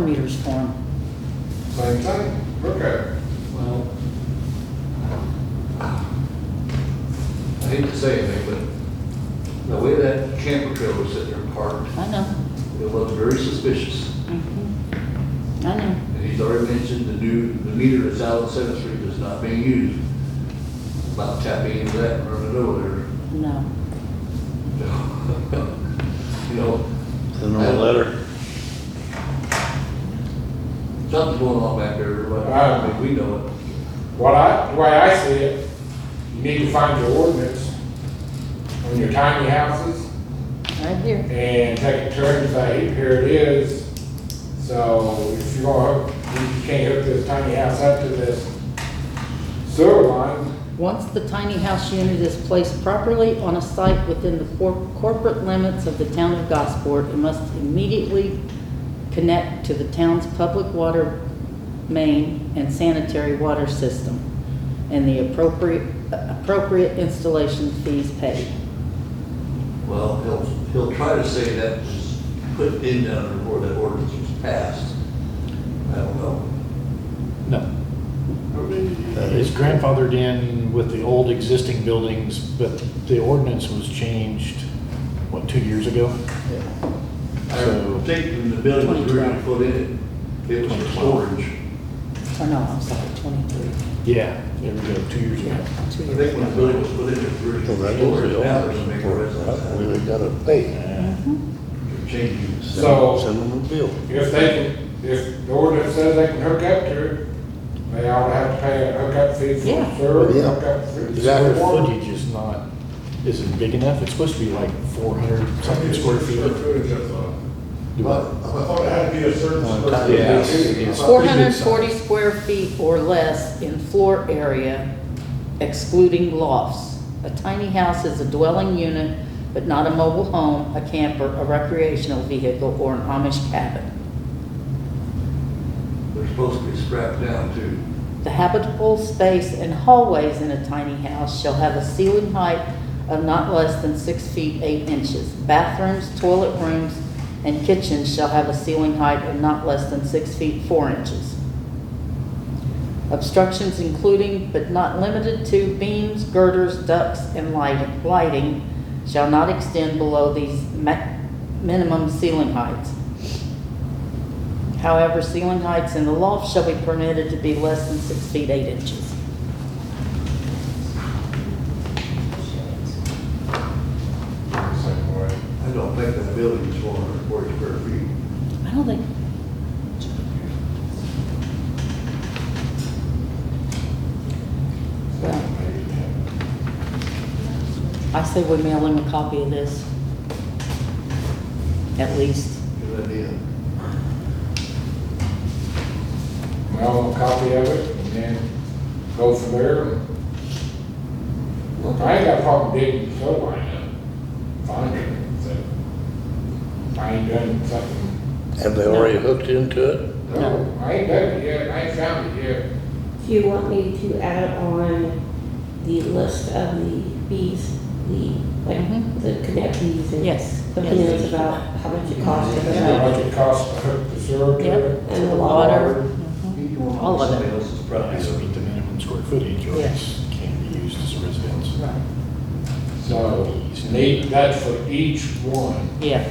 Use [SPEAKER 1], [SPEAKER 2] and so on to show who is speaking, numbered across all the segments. [SPEAKER 1] meters for them.
[SPEAKER 2] Same thing, look at it.
[SPEAKER 3] Well, I hate to say anything, but the way that camper trailer was sitting there parked,
[SPEAKER 1] I know.
[SPEAKER 3] it looked very suspicious.
[SPEAKER 1] Mhm. I know.
[SPEAKER 3] And he's already mentioned the new, the meter that's out on Seventh Street is not being used. About tapping into that, running over
[SPEAKER 1] No.
[SPEAKER 3] there. You know,
[SPEAKER 4] Send them a letter.
[SPEAKER 3] something's going on back there, but I mean, we know it.
[SPEAKER 2] What I, the way I see it, you need to find your ordinance on your tiny houses
[SPEAKER 1] Right here.
[SPEAKER 2] and take a turn and say, here it is. So if you're gonna, hook- you can't hook this tiny house up to this sewer line,
[SPEAKER 1] Once the tiny house unit is placed properly on a site within the cor- corporate limits of the town of Gosport, it must immediately connect to the town's public water main and sanitary water system, and the appropriate, appropriate installation fees paid.
[SPEAKER 3] Well, he'll, he'll try to say that was put in down before that ordinance was passed. I don't know.
[SPEAKER 5] No. Uh, It's grandfathered in with the old existing buildings, but the ordinance was changed, what, two years ago?
[SPEAKER 3] I think when the building was originally put in, it was for storage.
[SPEAKER 1] Or no, I'm sorry, twenty-three.
[SPEAKER 5] Yeah, there we go, two years
[SPEAKER 1] Yeah,
[SPEAKER 5] ago.
[SPEAKER 1] two
[SPEAKER 3] I
[SPEAKER 1] years
[SPEAKER 3] think when the
[SPEAKER 1] ago.
[SPEAKER 3] building was put in, it was really
[SPEAKER 4] Well,
[SPEAKER 3] for
[SPEAKER 4] that was
[SPEAKER 3] storage.
[SPEAKER 4] the
[SPEAKER 3] Now there's a big
[SPEAKER 4] old.
[SPEAKER 3] residence.
[SPEAKER 4] We gotta pay.
[SPEAKER 5] Yeah.
[SPEAKER 3] They're Changing.
[SPEAKER 4] Send-
[SPEAKER 2] So-
[SPEAKER 4] Send them a bill.
[SPEAKER 2] if they can, if the ordinance says they can hook up to it, they ought to have to pay a hookup fee
[SPEAKER 1] Yeah.
[SPEAKER 2] for sewer,
[SPEAKER 4] Yeah.
[SPEAKER 2] hookup fee. for
[SPEAKER 5] The square
[SPEAKER 2] water.
[SPEAKER 5] footage is not, isn't big enough, it's supposed to be like four hundred something square feet. Do
[SPEAKER 6] I
[SPEAKER 5] what?
[SPEAKER 6] thought it had to be a certain.
[SPEAKER 4] Uh,
[SPEAKER 6] square
[SPEAKER 4] yeah,
[SPEAKER 6] footage.
[SPEAKER 5] it's- it's-
[SPEAKER 1] Four hundred and forty square feet or less in floor area excluding lofts. A tiny house is a dwelling unit, but not a mobile home, a camper, a recreational vehicle, or an Amish cabin.
[SPEAKER 3] They're supposed to be strapped down too.
[SPEAKER 1] The habitable space and hallways in a tiny house shall have a ceiling height of not less than six feet eight inches. Bathrooms, toilet rooms, and kitchens shall have a ceiling height of not less than six feet four inches. Obstructions including but not limited to beams, girders, ducts, and lighting, lighting shall not extend below these ma- minimum ceiling heights. However, ceiling heights in the loft shall be permitted to be less than six feet eight inches.
[SPEAKER 2] Same way.
[SPEAKER 3] I don't think that building is four hundred forty square feet.
[SPEAKER 1] I don't think. Well, I say we mail him a copy of this. At least.
[SPEAKER 3] Good idea.
[SPEAKER 2] Well, a copy of it, and then go from there. Look, I ain't got a problem digging the sewer line up, finding it, so. if I ain't done something,
[SPEAKER 4] Have they already hooked into it?
[SPEAKER 2] no, I ain't done it yet, I ain't found it yet.
[SPEAKER 7] Do you want me to add on the list of the fees, the,
[SPEAKER 1] Mhm.
[SPEAKER 7] like, the connect fees and
[SPEAKER 1] Yes,
[SPEAKER 7] the
[SPEAKER 1] yes.
[SPEAKER 7] minutes about how much it costs to
[SPEAKER 2] How
[SPEAKER 7] hook
[SPEAKER 2] much
[SPEAKER 7] up
[SPEAKER 2] it costs to hook the sewer to it?
[SPEAKER 1] Yep.
[SPEAKER 7] and the
[SPEAKER 1] Water.
[SPEAKER 7] water.
[SPEAKER 1] All of it.
[SPEAKER 3] Somebody else's
[SPEAKER 5] It has to
[SPEAKER 3] property.
[SPEAKER 5] meet the minimum square footage, or it's can't be used as a residence.
[SPEAKER 1] Right.
[SPEAKER 2] So, need, that's for each one,
[SPEAKER 1] Yeah,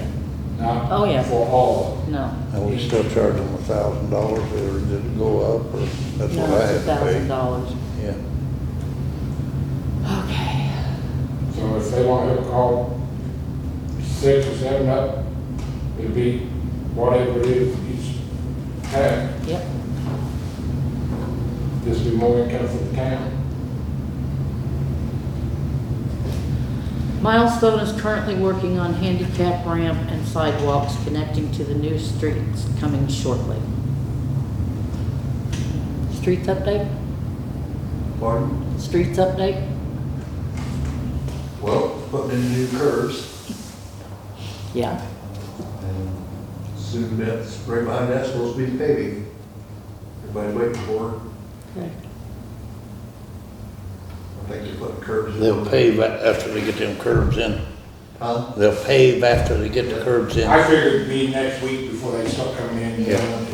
[SPEAKER 1] Oh, yeah.
[SPEAKER 2] not for all
[SPEAKER 1] no.
[SPEAKER 4] And we still charge them a thousand dollars or did it go up or that's what
[SPEAKER 1] No,
[SPEAKER 4] I
[SPEAKER 1] it's a
[SPEAKER 4] had
[SPEAKER 1] thousand
[SPEAKER 4] to
[SPEAKER 1] dollars.
[SPEAKER 4] pay? Yeah.
[SPEAKER 1] Okay.
[SPEAKER 2] of them. So if they want to hook all six or seven up, it'd be whatever it is each time.
[SPEAKER 1] Yep.
[SPEAKER 2] This would be more income for the town.
[SPEAKER 1] Milestone is currently working on handicap ramp and sidewalks connecting to the new streets coming shortly. Streets update?
[SPEAKER 3] Pardon?
[SPEAKER 1] Streets update?
[SPEAKER 3] Well, putting in new curves
[SPEAKER 1] Yeah.
[SPEAKER 3] and soon that's, right behind that's supposed to be paving. Everybody waiting for it. I think they put curves. in.
[SPEAKER 4] They'll pave a- after they get them curbs in.
[SPEAKER 3] Huh?
[SPEAKER 4] They'll pave after they get the curbs in.
[SPEAKER 2] I figured it'd be next week before they start coming in.
[SPEAKER 4] Yeah.